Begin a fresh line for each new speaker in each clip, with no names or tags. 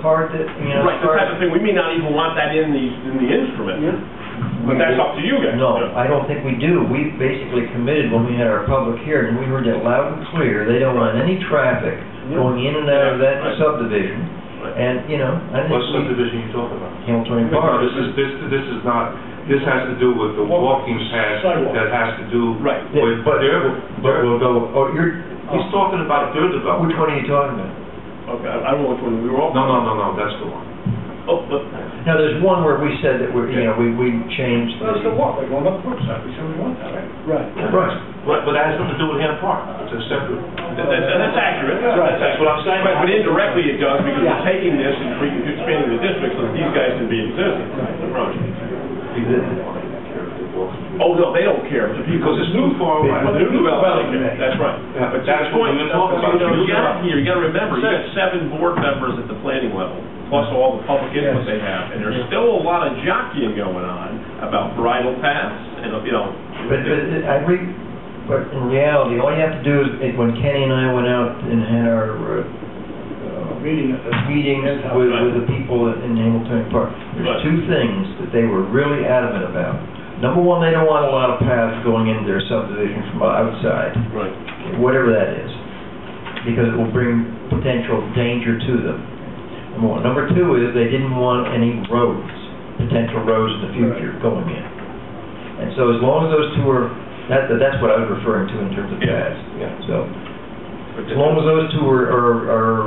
part that, you know,
Right,
as
this
far
type
as...
of thing, we may not even want that in the, in the instrument, but that's up to you guys.
No,
Yeah.
I don't think we do. We basically committed when we had our public hearing, we heard it loud and clear, they don't want any traffic going in and out of that
Right.
subdivision, and, you know, I think
What
we...
subdivision you talking about?
Hamiltonian
No,
Park.
this is, this, this is not, this has to do with the walking path
Sidewalk.
that has to do
Right.
with
But-
their,
But
their-
we'll go, oh, you're,
he's talking about their
which
development.
one are you talking about?
Okay, I I don't know which one we were all.
No, no, no, no, that's the one.
Oh, but,
Now, there's one where we said that we're, you know, we, we changed
That's the
the...
walk, they're going up Brookside, we said we want that, right?
Right.
Right.
But, but that has nothing to do with Ham Park, it's a separate.
that- that- that's accurate.
Right, that's what I'm saying.
But but indirectly it does, because
Yeah.
we're taking this and cre- expanding the district so that these guys can be in existence. Right. Oh, no, they don't care, the people.
Because it's too far away.
Well, the new development, okay, that's right.
Yeah,
But
that's
that's
what
point,
we were
you
talking about.
know, you gotta, you gotta remember, you got seven board members at the planning level, plus all the public input they have, and there's still a lot of jockeying going on about bridle paths, and, you know.
But, but it- I re, but in reality, all you have to do is, it- when Kenny and I went out and had our, uh,
Meeting at the...
uh, meetings with, with the people in Hamilton Park,
Right.
there's two things that they were really adamant about. Number one, they don't want a lot of paths going into their subdivision from outside,
Right.
whatever that is, because it will bring potential danger to them. Number one. Number two is they didn't want any roads, potential roads in the future going in. And so as long as those two are, that, that's what I was referring to in terms of
Yeah,
paths.
yeah.
So, as long as those two are, are, are,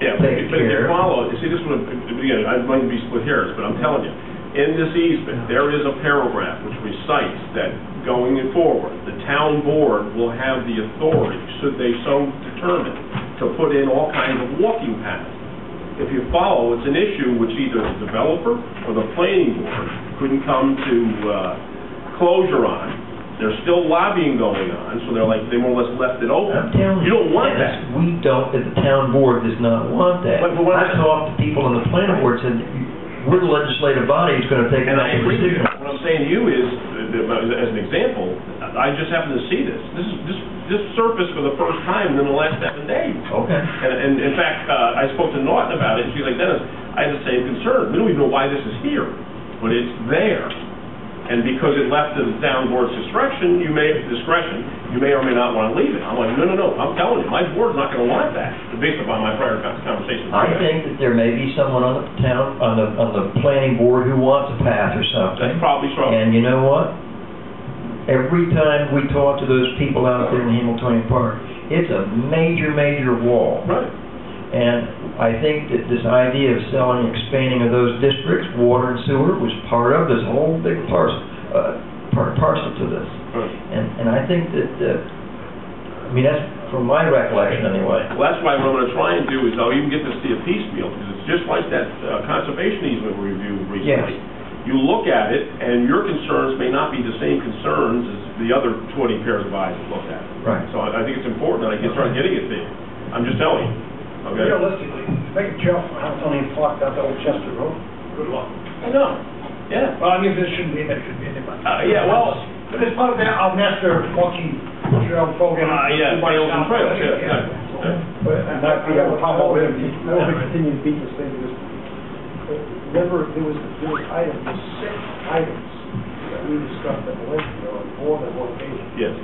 Yeah, but
Take
if but if you
care.
follow, you see, this would, again, I might be split hairs, but I'm telling you, in this easement, there is a paragraph which recites that going forward, the town board will have the authority, should they so determine, to put in all kinds of walking paths. If you follow, it's an issue which either the developer or the planning board couldn't come to uh, closure on. There's still lobbying going on, so they're like, they more or less left it
I'm
open.
telling you.
You don't want
Dennis,
that.
We don't, the town board does not want that.
But- but what-
I talked to people on the planning board, said, we're the legislative body, who's gonna take an
And I
action
agree with you.
decision.
What I'm saying to you is, uh, as an example, I just happened to see this. This is, this, this surfaced for the first time in the last seven days.
Okay.
And, and in fact, uh, I spoke to Norton about it, and she's like, Dennis, I have the same concern. We don't even know why this is here, but it's there. And because it left to the town board's discretion, you may, discretion, you may or may not want to leave it. I'm like, no, no, no, I'm telling you, my board's not going to want that, based upon my prior con- conversation.
I think that there may be someone on the town, on the, on the planning board who wants a path or something.
That's probably so.
And you know what? Every time we talk to those people out there in Hamiltonian Park, it's a major, major wall.
Right.
And I think that this idea of selling, expanding of those districts, water and sewer, was part of this whole big parcel, uh, par- parcel to this.
Right.
And, and I think that, uh, I mean, that's from my recollection anyway.
Well, that's why what I'm gonna try and do is I'll even get this to you piecemeal, because it's just like that uh, conservation easement review
Yes.
recently. You look at it, and your concerns may not be the same concerns as the other 20 pairs of eyes that look at it.
Right.
So I I think it's important that I can start getting it to you. I'm just telling you, okay?
Realistically, to make a jump from Hamiltonian Park down to Old Chester Road, good luck.
I know, yeah.
Well, I mean, this shouldn't be, in there, it should be in there. but-
Uh, yeah, well-
But it's part of that, our master walking trail program.
Uh, yeah,
Everybody
trails and
down-
trails, yeah, yeah, yeah.
But I I have a problem with it.
I hope we continue to beat this thing, because uh, remember, there was, there was items, there was six items that we discussed at the last, meeting on more than one occasion.
Yes,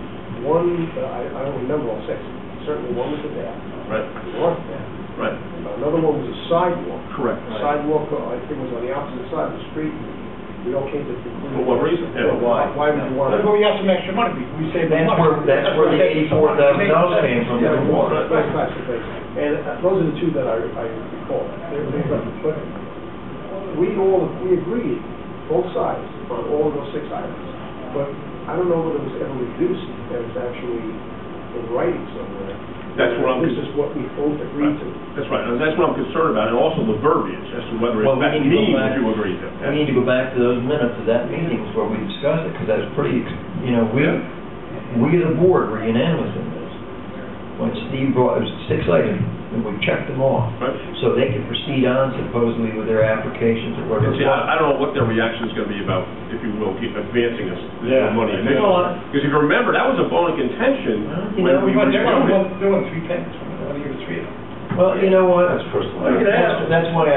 One, uh, I, I don't remember all six, certainly one was a bath,
right,
one bath.
right,
Another one was a sidewalk,
correct.
A sidewalk, uh, I think was on the opposite side of the street, we all came to the conclusion.
For what reason? Yeah.
Why, why would you want
But
to?
we have some extra money, we- we saved the money.
That's where, that's where the eighty-four thousand dollars came from,
Yeah,
the water.
right, right, right, right. And uh, those are the two that I, I recall. They're- they're not- But we all, we agreed, both sides, on all of those six items. But I don't know whether it was ever reduced, that it's actually in writing somewhere.
That's what I'm-
This is what we both agreed to.
That's right, and that's what I'm concerned about, and also the verbiage, as to whether
Well,
it
we
that
need to go
means
back-
what you agree to.
We need to go back to those minutes of that meeting where we discussed it, because that was pretty, you know, we, we as a board were unanimous in this. When Steve brought, it was six items, and we checked them off,
Right?
so they could proceed on supposedly with their applications or
And
whatever.
see, I I don't know what their reaction is going to be about, if you will, keep advancing us the
Yeah.
money.
They don't want
Because if you remember, that was a bone of
Well,
contention
you
when
know,
we
But they're gonna
reviewed it.
want, they want three things, they're gonna give us three of them.
Well, you know what?
That's personal.
That's that's why I